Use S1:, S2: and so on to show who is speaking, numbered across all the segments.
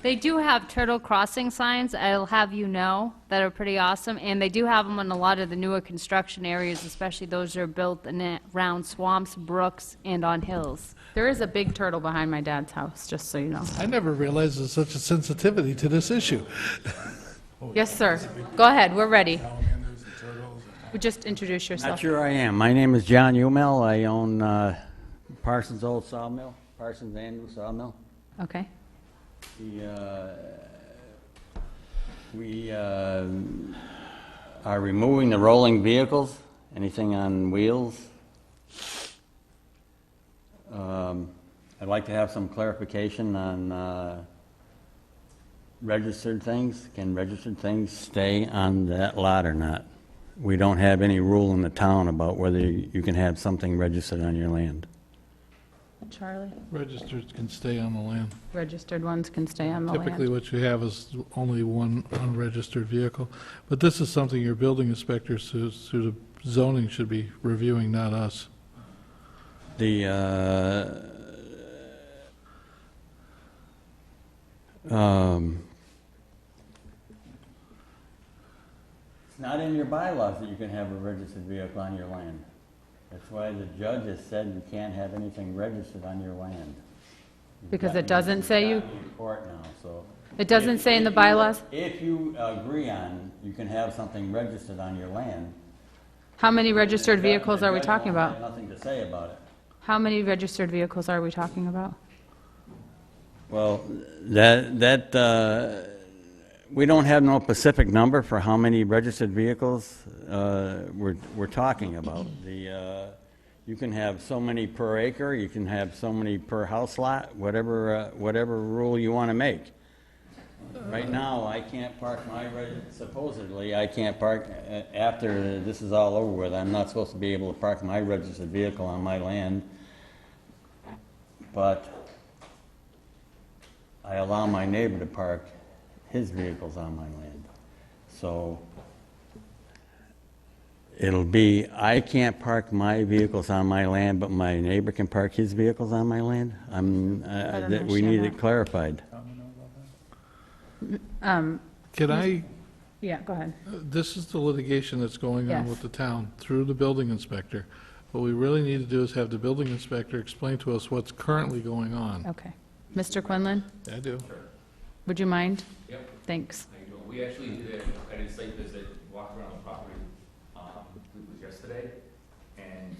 S1: They do have turtle crossing signs, I'll have you know, that are pretty awesome, and they do have them on a lot of the newer construction areas, especially those that are built in, around swamps, brooks, and on hills.
S2: There is a big turtle behind my dad's house, just so you know.
S3: I never realized there's such a sensitivity to this issue.
S4: Oh,
S2: Yes, sir. Go ahead, we're ready. Would Just introduce
S4: Not
S2: yourself.
S4: sure I am. My name is John Umel. I own uh, Parsons Old Sawmill, Parsons Andrew Sawmill.
S2: Okay.
S4: The, uh, We uh, are removing the rolling vehicles, anything on wheels. Um, I'd like to have some clarification on uh, registered things. Can registered things stay on that lot or not? We don't have any rule in the town about whether you can have something registered on your land.
S2: Charlie?
S3: Registered can stay on the land.
S2: Registered ones can stay on the
S3: Typically,
S2: land.
S3: what you have is only one unregistered vehicle. But this is something your building inspectors through through the zoning should be reviewing, not us.
S4: The, uh, um, it's not in your bylaws that you can have a registered vehicle on your land. That's why the judge has said you can't have anything registered on your land. You've
S2: Because
S4: gotten-
S2: it doesn't say you-
S4: you've gotten in court now, so.
S2: It doesn't
S4: If-
S2: say in the
S4: if you-
S2: bylaws?
S4: If you agree on, you can have something registered on your land.
S2: How many registered
S4: the judge-
S2: vehicles
S4: the
S2: are we
S4: judge won't
S2: talking
S4: have
S2: about?
S4: Nothing to say about it.
S2: How many registered vehicles are we talking about?
S4: Well, that, that, uh, we don't have no specific number for how many registered vehicles uh, we're, we're talking about. The, uh, you can have so many per acre, you can have so many per house lot, whatever, uh, whatever rule you want to make. Right now, I can't park my, reg- supposedly, I can't park, uh, after this is all over with, I'm not supposed to be able to park my registered vehicle on my land. But I allow my neighbor to park his vehicles on my land. So it'll be, I can't park my vehicles on my land, but my neighbor can park his vehicles on my land? I'm,
S2: I
S4: uh,
S2: don't
S4: that we
S2: understand
S4: need
S2: that.
S4: it clarified.
S3: Can I,
S2: Yeah, go ahead.
S3: this is the litigation that's going on
S2: Yes.
S3: with the town through the building inspector. What we really need to do is have the building inspector explain to us what's currently going on.
S2: Okay. Mr. Quinlan,
S3: I do.
S2: would you mind?
S5: Yep,
S2: Thanks.
S5: how you doing? We actually did a- an site visit, walked around the property, um, I believe it was yesterday, and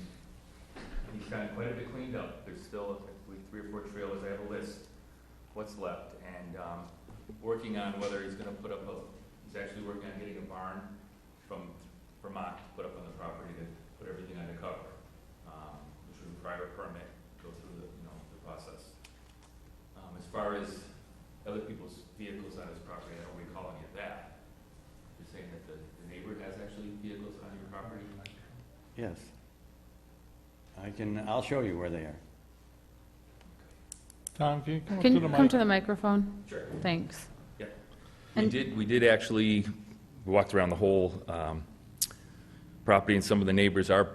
S5: he's gotten quite a bit cleaned up. There's still, I believe, three or four trailers, I have a list, what's left, and, um, working on whether he's gonna put up a, he's actually working on getting a barn from Vermont to put up on the property to put everything under cover, um, which would require a permit, go through the, you know, the process. Um, as far as other people's vehicles on his property, I don't recall any of that. You're saying that the, the neighbor has actually vehicles on your property?
S4: Yes. I can, I'll show you where they are.
S3: Tom, can you come up
S2: Can
S3: to
S2: you
S3: the
S2: come
S3: mic?
S2: to the microphone?
S5: Sure.
S2: Thanks.
S5: We
S2: And-
S5: did, we did actually, we walked around the whole um, property, and some of the neighbors are,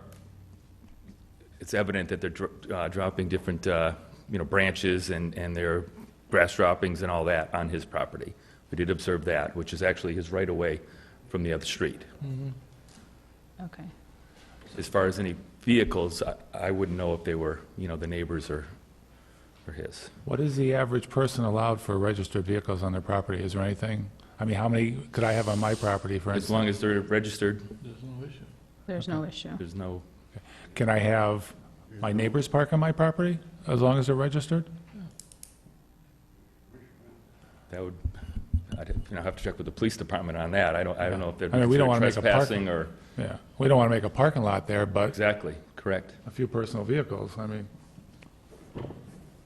S5: it's evident that they're dro- uh, dropping different, uh, you know, branches and, and their grass droppings and all that on his property. We did observe that, which is actually his right-of-way from the other street.
S2: Okay.
S5: As far as any vehicles, I- I wouldn't know if they were, you know, the neighbors or, or his.
S6: What is the average person allowed for registered vehicles on their property? Is there anything? I mean, how many could I have on my property, for
S5: As
S6: instance?
S5: long as they're registered,
S3: There's no issue.
S2: There's no issue.
S5: there's no,
S6: Can I have my neighbors park on my property, as long as they're registered?
S5: that would, I'd, you know, have to check with the police department on that. I don't, I don't know if they're
S6: I mean, we don't wanna make a park-
S5: trespassing or,
S6: Yeah, we don't want to make a parking lot there, but
S5: exactly, correct.
S6: a few personal vehicles, I mean,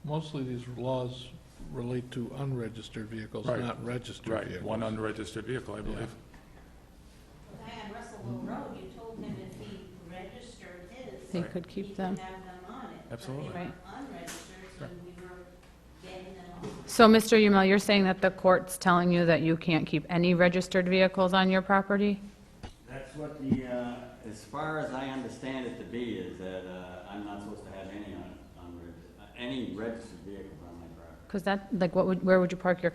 S3: Mostly these laws relate to unregistered vehicles,
S6: Right.
S3: not registered
S6: right,
S3: vehicles.
S6: one unregistered vehicle, I believe.
S7: Diane Russell Will Road, you told him if he registered his.
S2: They could keep
S7: he could
S2: them.
S7: have them on it.
S6: Absolutely.
S7: But they
S2: Right.
S7: were unregistered, so we were getting them off.
S2: So, Mr. Umel, you're saying that the court's telling you that you can't keep any registered vehicles on your property?
S4: That's what the, uh, as far as I understand it to be, is that uh, I'm not supposed to have any on, on, reg- uh, any registered vehicles on my property.
S2: Because that, like, what would, where would you park your